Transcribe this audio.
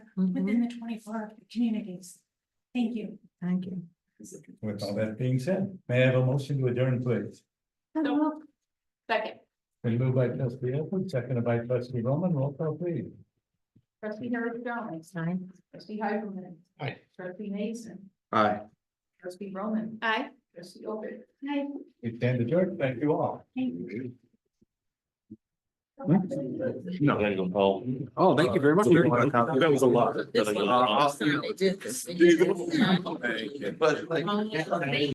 within the twenty-four communities. Thank you. Thank you. With all that being said, may I have a motion to adjourn, please? Hello. Second, Been moved by trustee Elwood, seconded by trustee Roman, roll call please. trustee Harris Jones, Aye. trustee Heiserman. Aye. Trustee Mason, Aye. trustee Roman. Aye. Trustee Elbit. Hi. You stand adjourned, thank you all. No. I'm gonna go Paul. Oh, thank you very much. That was a lot. This one. Uh, I'll- They did this. Thank you. But like.